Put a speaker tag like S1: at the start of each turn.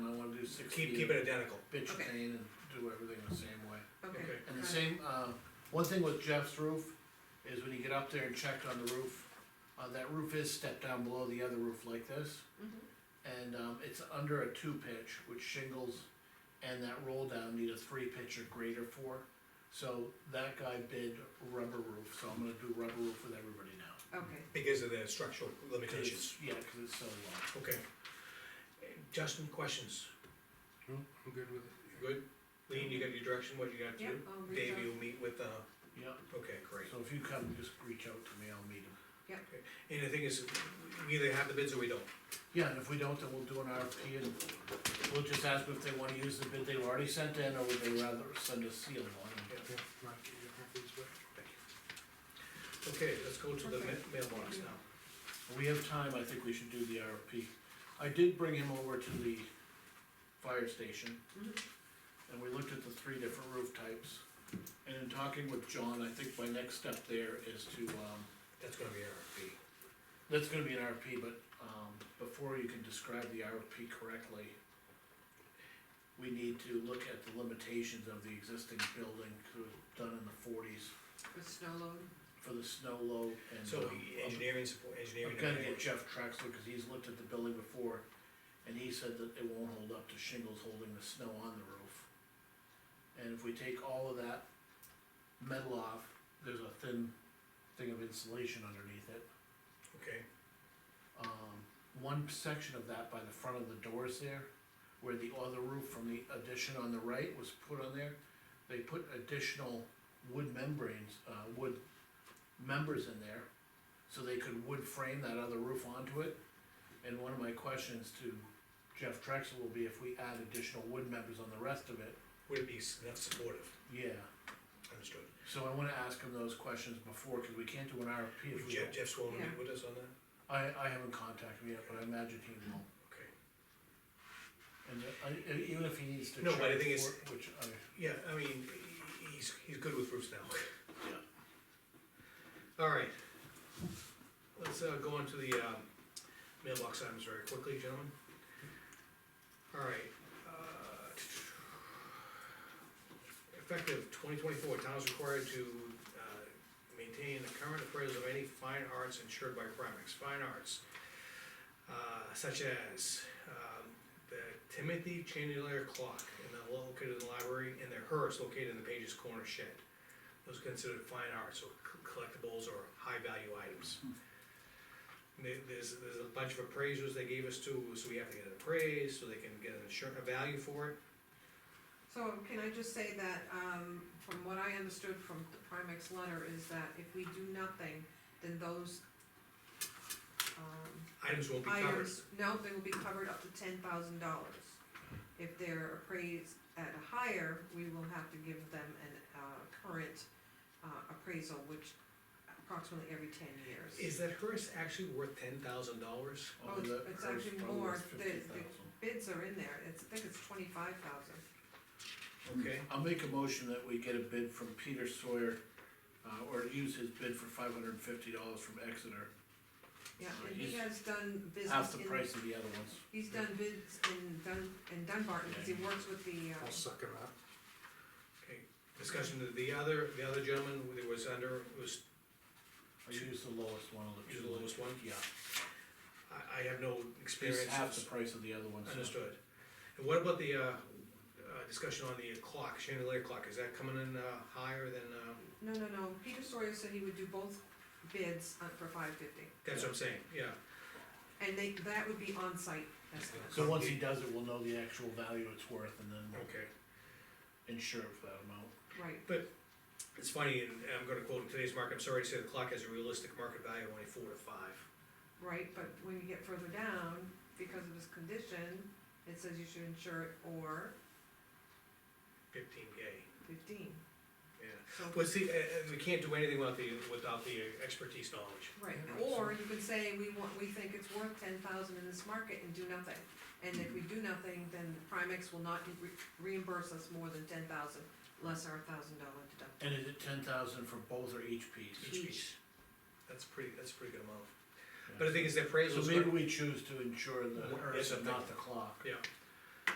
S1: sixteen.
S2: keep, keep it identical.
S1: Bitch
S3: Okay.
S1: stain and do everything the same way.
S3: okay.
S2: Okay.
S1: And the
S3: got it.
S1: same, uh, one thing with Jeff's roof, is when you get up there and check on the roof, uh, that roof is stepped down below the other roof like this.
S3: Mhm.
S1: And, um, it's under a two pitch, which shingles and that roll down need a three pitch or greater for. So that guy bid rubber roof, so I'm gonna do rubber roof with everybody now.
S3: Okay,
S2: Because of the structural
S1: 'Cause
S2: limitations,
S1: it's- Yeah, cause it's so long.
S2: okay. Justin, questions?
S4: No, I'm good with it.
S2: Good? Lean, you got your direction, what you got to
S3: yep,
S2: do?
S3: I'll reach
S2: Dave,
S3: out.
S2: you'll meet with, uh,
S1: Yeah,
S2: okay, great.
S1: so if you come, just reach out to me, I'll meet him.
S2: And the thing is, we either have the bids or we don't.
S1: Yeah, and if we don't, then we'll do an RFP and we'll just ask them if they wanna use the bid they've already sent in, or would they rather send a sealed one?
S4: Yeah, Mark, you got my things back.
S2: Okay, let's go to the ma-
S3: Okay.
S2: mailbox now.
S1: We have time, I think we should do the RFP. I did bring him over to the fire station.
S3: Mhm.
S1: And we looked at the three different roof types. And in talking with John, I think my next step there is to, um,
S2: That's gonna be RFP.
S1: That's gonna be an RFP, but, um, before you can describe the RFP correctly, we need to look at the limitations of the existing building, 'cause it was done in the forties,
S3: with snow load,
S1: for the snow load and.
S2: So
S1: um,
S2: engineering support, engineering.
S1: I'm gonna get Jeff Trexler, cause he's looked at the building before, and he said that it won't hold up to shingles holding the snow on the roof. And if we take all of that metal off, there's a thin thing of insulation underneath it.
S2: Okay,
S1: um, one section of that by the front of the doors there, where the other roof from the addition on the right was put on there. They put additional wood membranes, uh, wood members in there, so they could wood frame that other roof onto it. And one of my questions to Jeff Trexel will be if we add additional wood members on the rest of it,
S2: would it be s- enough supportive?
S1: yeah.
S2: Understood.
S1: So I wanna ask him those questions before, cause we can't do an RFP if we
S2: Jeff,
S1: don't.
S2: Jeff's willing to
S3: Yeah.
S2: meet with us on that?
S1: I, I haven't contacted him yet, but I imagine he will.
S2: Okay.
S1: And uh, I- even if he needs to.
S2: No, but the
S1: charge
S2: thing is-
S1: for it, Which, I,
S2: Yeah, I mean, he- he's, he's good with roofs now.
S1: yeah,
S2: All right. Let's, uh, go into the, um, mailbox items very quickly, gentlemen. All right. uh, Effective twenty twenty-four, towns required to, uh, maintain the current appraisal of any fine arts insured by Primex, fine arts. Uh, such as, um, the Timothy Chandelier clock in the, located in the library, and the hearse located in the Page's Corner shed was considered fine arts or c- collectibles or high-value items. There- There's, there's a bunch of appraisers they gave us too, so we have to get it appraised, so they can get an insurance, a value for it.
S3: so can I just say that, um, from what I understood from the Primex letter is that if we do nothing, then those, um,
S2: Items won't be covered.
S3: items, no, they will be covered up to ten thousand dollars. If they're appraised at a higher, we will have to give them an, uh, current, uh, appraisal, which approximately every ten years.
S2: Is that hearse actually worth ten thousand dollars?
S3: Oh,
S1: although
S3: it's-
S1: that
S3: it's
S1: hers
S3: actually
S1: probably
S3: more.
S1: was
S3: The- the-
S1: 50,000.
S3: Bids are in there, it's, I think it's twenty-five thousand.
S2: Okay,
S1: I'll make a motion that we get a bid from Peter Sawyer, uh, or use his bid for five hundred and fifty dollars from Exeter,
S3: Yeah,
S1: So
S3: and he
S1: he's
S3: has done
S1: half
S3: business
S1: the
S3: in,
S1: price of the other ones.
S3: he's done bids in Dun, in Dunbarton, because he works with the,
S4: I'll
S3: uh,
S4: suck it up.
S2: okay. Discussion, to the other, the other gentleman, that was under, was,
S1: I used the lowest one of the
S2: Use
S1: two.
S2: the lowest one?
S1: Yeah,
S2: I, I have no experience.
S1: it's half the price of the other ones. so-
S2: Understood. And what about the, uh, uh, discussion on the clock, chandelier clock, is that coming in, uh, higher than, um,
S3: no, no, no, Peter Sawyer said he would do both bids uh, for five fifty.
S2: that's what I'm saying, yeah.
S3: And they, that would be on-site estimate.
S1: So once he does it, we'll know the actual value it's worth and then we'll
S2: Okay.
S1: insure it for that amount.
S3: right,
S2: It's funny, and I'm gonna quote in today's market, I'm sorry to say the clock has a realistic market value of only four to five.
S3: right, but when you get further down, because of his condition, it says you should insure it or
S2: Fifteen K,
S3: fifteen,
S2: yeah.
S3: so.
S2: Well, see, uh, uh, we can't do anything without the, without the expertise knowledge.
S3: Right, or you could say, we want, we think it's worth ten thousand in this market and do nothing. And if we do nothing, then Primex will not re- reimburse us more than ten thousand, less our thousand dollar deductible.
S1: And is it ten thousand for both or each piece?
S2: Each
S3: Each.
S2: piece. That's pretty, that's a pretty good amount.
S1: Yeah.
S2: But the thing is, the appraisal.
S1: So maybe we choose to insure the
S2: Well,
S1: earth
S2: yes, I
S1: and not the
S2: think-
S1: clock.
S2: Yeah,